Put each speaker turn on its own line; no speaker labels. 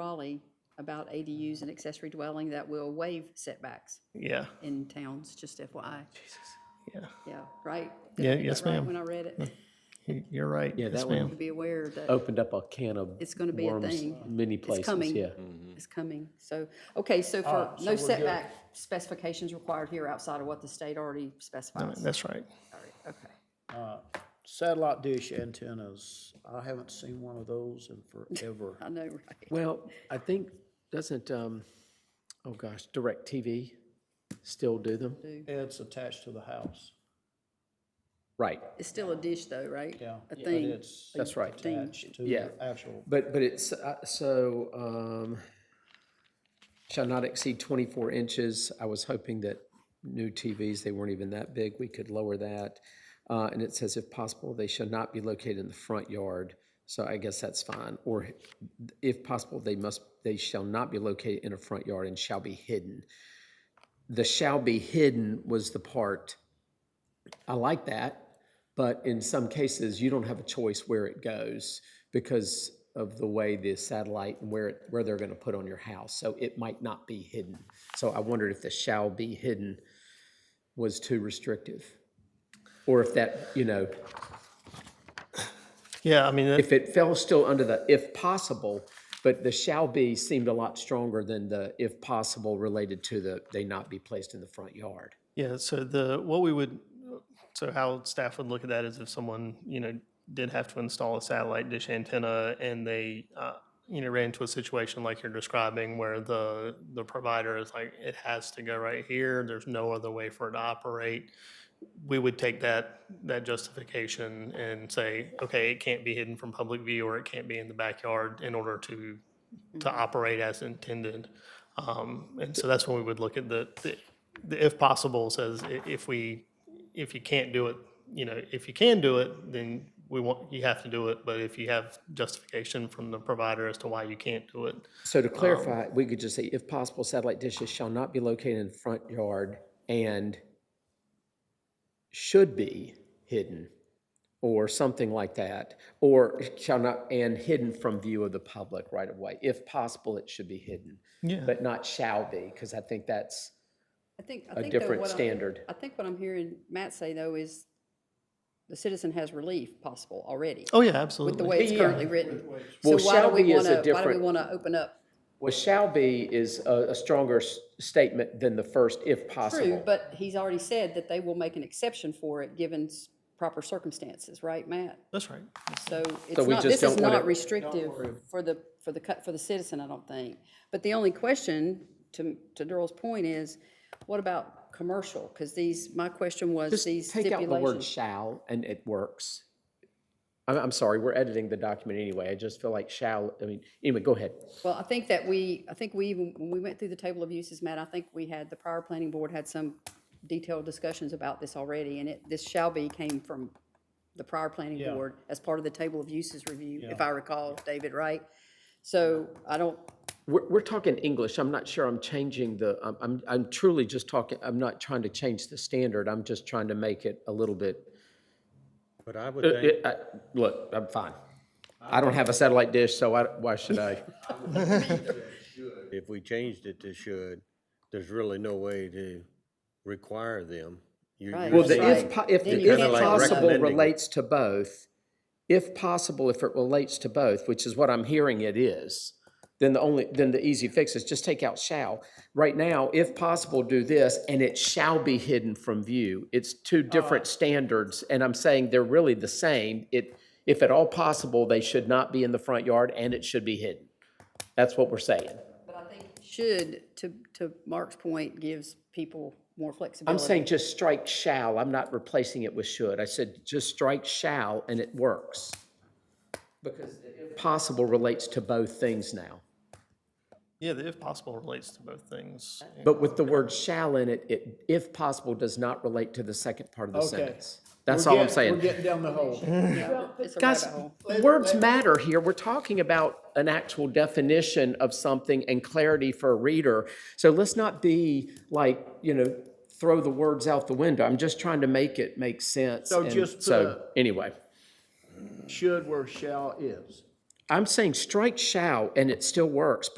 Raleigh about ADUs and accessory dwelling that will waive setbacks
Yeah,
in towns, just FYI.
yeah,
Yeah, right?
Yeah,
Did I get
yes,
that right
ma'am.
When I read it,
You- you're right.
Yeah,
Yes,
that one-
ma'am.
to be aware that
opened up a can of
it's going to be a
Oh, worms Mm.
thing.
many
It's
places.
coming.
Yeah.
It's coming. So, okay, so for
Ah,
no setback specifications required here outside of what the state already
No,
specifies.
That's right.
All right, Okay.
Satellite dish antennas, I haven't seen one of those in forever.
I know, right?
Well, I think, doesn't, um, oh gosh, DirecTV still do them?
It's attached to the house,
Right,
It's still a dish though, right?
yeah.
A
but
thing.
it's
that's right.
Attached to
Yeah.
the actual,
But, but it's, uh, so, um, shall not exceed twenty-four inches. I was hoping that new TVs, they weren't even that big, we could lower that. Uh, and it says if possible, they shall not be located in the front yard, so I guess that's fine. Or if possible, they must, they shall not be located in a front yard and shall be hidden. The shall be hidden was the part, I like that. But in some cases, you don't have a choice where it goes because of the way the satellite and where, it- where they're going to put on your house. So it might not be hidden. So I wondered if the shall be hidden was too restrictive. Or if that, you know,
Yeah, I mean, that-
if it fell still under the if possible, but the shall be seemed a lot stronger than the if possible related to the they not be placed in the front yard.
yeah, so the, what we would, so how staff would look at that is if someone, you know, did have to install a satellite dish antenna and they, uh, you know, ran into a situation like you're describing where the, the provider is like, it has to go right here, there's no other way for it to operate. We would take that, that justification and say, okay, it can't be hidden from public view or it can't be in the backyard in order to, to operate as intended. Um, And so that's when we would look at the, the- the if possible says i- if we, if you can't do it, you know, if you can do it, then we want, you have to do it. But if you have justification from the provider as to why you can't do it,
So to clarify, we could just say, if possible, satellite dishes shall not be located in the front yard and should be hidden, or something like that, or shall not, and hidden from view of the public right of way. If possible, it should be hidden.
Yeah.
But not shall be, because I think that's
I think, I
a
think though
different
what I'm-
standard.
I think what I'm hearing Matt say though is the citizen has relief possible already
oh yeah,
with the
absolutely.
way it's currently written. So why
Well,
do
shall
we
be is
want
a
to, why do we
different-
want to open up?
Well, shall be is a, a stronger s- statement than the first, if
True,
possible.
but he's already said that they will make an exception for it given s- proper circumstances, right, Matt?
That's right.
So it's
we
not,
just
this is
don't wanna-
not restrictive for the, for the, cut for the citizen, I don't think. But the only question, to, to Darrell's point, is what about commercial? Because these, my question was these
Just take out the word
stipulations.
shall and it works. I'm, I'm sorry, we're editing the document anyway. I just feel like shall, I mean, anyway, go ahead.
Well, I think that we, I think we even, when we went through the table of uses, Matt, I think we had, the prior planning board had some detailed discussions about this already, and it, this shall be came from the prior planning
Yeah.
board as part of the table of uses review, if I recall, David, right? So I don't,
We're, we're talking English. I'm not sure I'm changing the, I'm- I'm, I'm truly just talking, I'm not trying to change the standard. I'm just trying to make it a little bit.
But I would
Uh,
think,
uh, Look, I'm fine. I don't have a satellite dish, so I, why should I?
if we changed it to should, there's really no way to require them. You-
Right.
you're
Well, the
saying-
if, po- if,
Then
the
you
if
can't
Kinda like
possible
recommending it.
relates to both, if possible, if it relates to both, which is what I'm hearing it is, then the only, then the easy fix is just take out shall. Right now, if possible, do this, and it shall be hidden from view. It's two different standards, and I'm saying they're really the same. It, if at all possible, they should not be in the front yard, and it should be hidden. That's what we're saying.
but I think should, to, to Mark's point, gives people more
I'm
flexibility.
saying just strike shall, I'm not replacing it with should. I said just strike shall and it works. Because the if possible relates to both things now.
Yeah, the if possible relates to both things.
But with the word shall in it, it, if possible, does not relate to the second part of the sentence. That's
We're
all I'm
getting-
saying.
We're getting down the hole.
Yeah, It's a rabbit
Guys,
hole.
words matter here. We're talking about an actual definition of something and clarity for a reader. So let's not be like, you know, throw the words out the window. I'm just trying to make it make sense.
So
and
just put
So,
a-
anyway.
Should where shall is.
I'm saying strike shall, and it still works,